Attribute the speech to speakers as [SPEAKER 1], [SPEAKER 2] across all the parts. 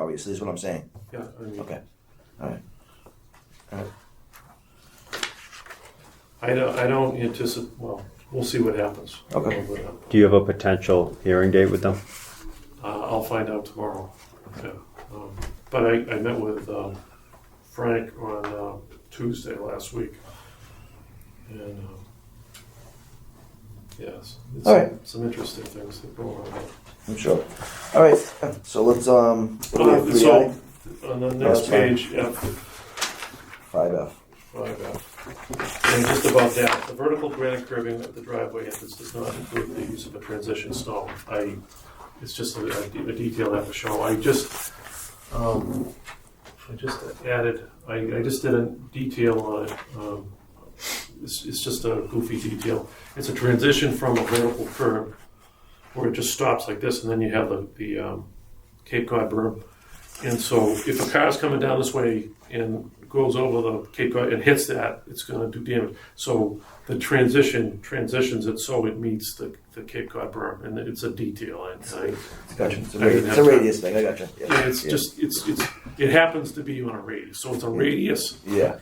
[SPEAKER 1] obviously, is what I'm saying.
[SPEAKER 2] Yeah, I mean,
[SPEAKER 1] Okay. All right.
[SPEAKER 2] I don't, I don't anticipate, well, we'll see what happens.
[SPEAKER 1] Okay.
[SPEAKER 2] But, uh,
[SPEAKER 3] Do you have a potential hearing date with them?
[SPEAKER 2] I'll find out tomorrow. Yeah. Um, But I, I met with um, Frank on uh, Tuesday last week. And, um, yes. it's
[SPEAKER 1] All right.
[SPEAKER 2] Some interesting things that go on.
[SPEAKER 1] I'm sure. All right. So let's um. what do we have,
[SPEAKER 2] Uh,
[SPEAKER 1] three
[SPEAKER 2] So,
[SPEAKER 1] I?
[SPEAKER 2] on the
[SPEAKER 1] That's
[SPEAKER 2] next
[SPEAKER 1] fine.
[SPEAKER 2] page, F
[SPEAKER 1] Five F.
[SPEAKER 2] Five F. And just above that, the vertical granite curving of the driveway entrance does not include the use of a transition stone. I, it's just a, a de- a detail I have to show. I just, um, I just added, I, I just did a detail on it. Um, it's, it's just a goofy detail. It's a transition from a vertical curve where it just stops like this and then you have the, the, um, Cape Cod berm. And so if a car's coming down this way and goes over the Cape Cod and hits that, it's going to do damage. So the transition transitions it so it meets the, the Cape Cod berm, and it's a detail. And I,
[SPEAKER 1] Gotcha. It's a, radius, it's a
[SPEAKER 2] I didn't have time.
[SPEAKER 1] radius thing. I gotcha. Yeah.
[SPEAKER 2] yeah, it's
[SPEAKER 1] yeah.
[SPEAKER 2] just it's it's it happens to be on a radius, so it's a radius
[SPEAKER 1] yeah.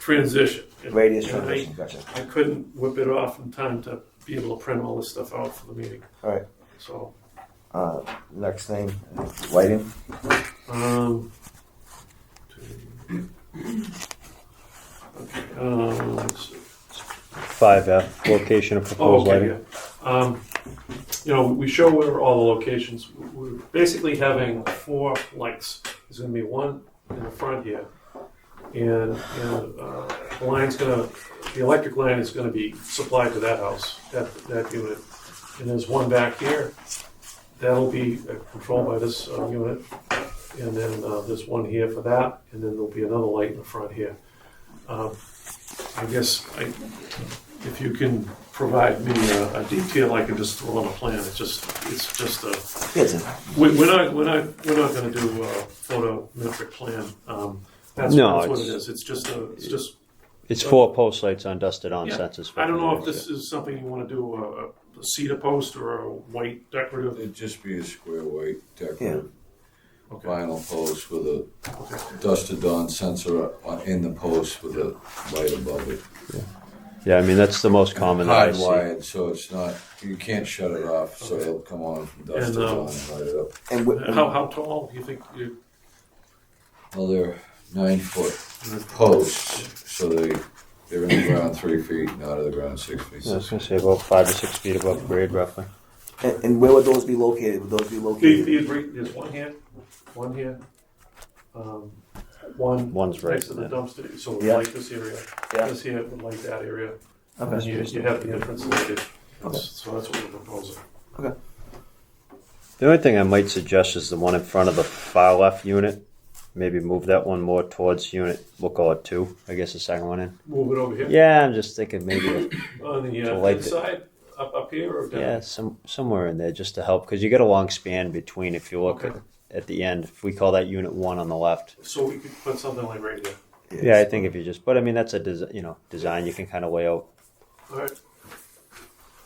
[SPEAKER 2] transition. And-
[SPEAKER 1] Radius
[SPEAKER 2] and I-
[SPEAKER 1] transition. Gotcha.
[SPEAKER 2] I couldn't whip it off in time to be able to print all this stuff out for the meeting.
[SPEAKER 1] All right.
[SPEAKER 2] So
[SPEAKER 1] Uh, next thing, lighting.
[SPEAKER 2] Um, two. Okay, um, let's see.
[SPEAKER 3] 5F, location of
[SPEAKER 2] Oh,
[SPEAKER 3] proposed
[SPEAKER 2] okay,
[SPEAKER 3] lighting.
[SPEAKER 2] yeah. Um, You know, we show where all the locations, we're basically having four lights. There's gonna be one in the front here. And, and, uh, the line's gonna, the electric line is gonna be supplied to that house, that, that unit. And there's one back here, that'll be uh, controlled by this, uh, unit. And then, uh, there's one here for that, and then there'll be another light in the front here. Um, I guess I, if you can provide me a, a detail, I can just throw on a plan. It's just, it's just a,
[SPEAKER 1] Yeah, it's a-
[SPEAKER 2] we, we're not, we're not, we're not gonna do a photometric plan. Um, That's,
[SPEAKER 3] No,
[SPEAKER 2] that's what it
[SPEAKER 3] it's-
[SPEAKER 2] is. It's just a, it's just,
[SPEAKER 3] It's four post lights on dusted on
[SPEAKER 2] Yeah.
[SPEAKER 3] sensors.
[SPEAKER 2] I don't know if this is something you wanna do, a- a cedar post or a white decorative.
[SPEAKER 4] It'd just be a square white decorative
[SPEAKER 2] Okay.
[SPEAKER 4] vinyl post with a dusted on sensor up on- in the post with a light above it.
[SPEAKER 3] Yeah, I mean, that's the most common that I see.
[SPEAKER 4] Hardwired, so it's not, you can't shut it off, so it'll come on from
[SPEAKER 2] And,
[SPEAKER 4] dusted
[SPEAKER 2] um,
[SPEAKER 4] on and light it up.
[SPEAKER 1] and wh-
[SPEAKER 2] How, how tall do you think you,
[SPEAKER 4] Well, they're nine foot posts, so they, they're in the ground three feet and out of the ground six feet.
[SPEAKER 3] Yeah, I was going to say about five to six feet above grade, roughly.
[SPEAKER 1] and, and where would those be located? Would those be
[SPEAKER 2] the,
[SPEAKER 1] located?
[SPEAKER 2] the, there's one here, one here, um, one.
[SPEAKER 3] One's right
[SPEAKER 2] Next to the
[SPEAKER 3] there.
[SPEAKER 2] dumpster, so we
[SPEAKER 1] Yeah.
[SPEAKER 2] like this area.
[SPEAKER 1] Yeah.
[SPEAKER 2] This here, we like that area.
[SPEAKER 1] okay.
[SPEAKER 2] You, you have the difference later.
[SPEAKER 1] Okay.
[SPEAKER 2] So that's what we're proposing.
[SPEAKER 3] The only thing I might suggest is the one in front of the far left unit. Maybe move that one more towards unit, we'll call it two, I guess the second one in.
[SPEAKER 2] Move it over here.
[SPEAKER 3] Yeah, I'm just thinking maybe,
[SPEAKER 2] On the
[SPEAKER 3] To
[SPEAKER 2] uh,
[SPEAKER 3] light it.
[SPEAKER 2] inside, up, up here or down?
[SPEAKER 3] yeah, some, somewhere in there just to help, because you get a long span between if you look
[SPEAKER 2] Okay.
[SPEAKER 3] at, at the end. If we call that unit one on the left,
[SPEAKER 2] So we could put something like right here.
[SPEAKER 3] Yeah, I think if you just, but I mean, that's a desi you know design you can kind of lay out
[SPEAKER 2] All right.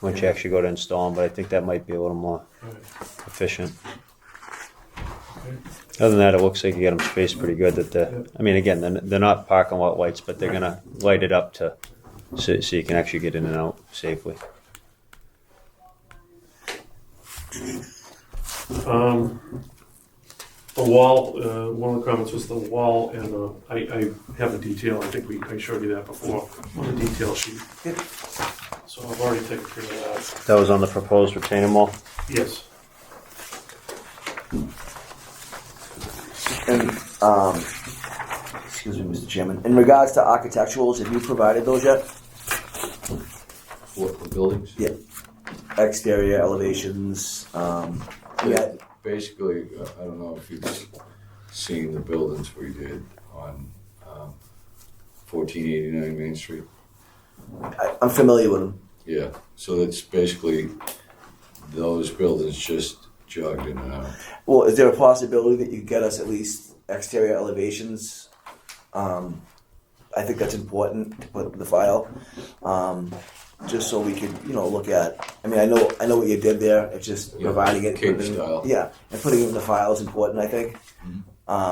[SPEAKER 3] once you actually go to install them. But I think that might be a little more
[SPEAKER 2] All right.
[SPEAKER 3] efficient. Other than that, it looks like you get them spaced pretty good. That the, I mean, again, they're, they're not parking lot lights, but they're gonna light it up to so, so you can actually get in and out safely.
[SPEAKER 2] Um, the wall, uh, one of the comments was the wall, and uh, I, I have a detail. I think we I showed you that before on the detail sheet.
[SPEAKER 1] Yep.
[SPEAKER 2] So I've already taken care of that.
[SPEAKER 3] That was on the proposed retaining wall.
[SPEAKER 2] Yes.
[SPEAKER 1] And um, excuse me, Mr. Chairman. In regards to architecturals, have you provided those yet?
[SPEAKER 4] What, the buildings?
[SPEAKER 1] Yeah. Exterior elevations. Um, yeah.
[SPEAKER 4] Basically, uh, I don't know if you've seen the buildings we did on um, 1489 Main Street.
[SPEAKER 1] I, I'm familiar with them.
[SPEAKER 4] Yeah, so that's basically those buildings just jogged in and out.
[SPEAKER 1] Well, is there a possibility that you could get us at least exterior elevations? Um, I think that's important to put in the file, um, just so we could, you know, look at. I mean, I know, I know what you did there. It's just
[SPEAKER 4] Yeah,
[SPEAKER 1] providing it,
[SPEAKER 4] cake
[SPEAKER 1] within-
[SPEAKER 4] style. Mm-hmm.
[SPEAKER 1] yeah, and putting it in the file is important. I think. Um,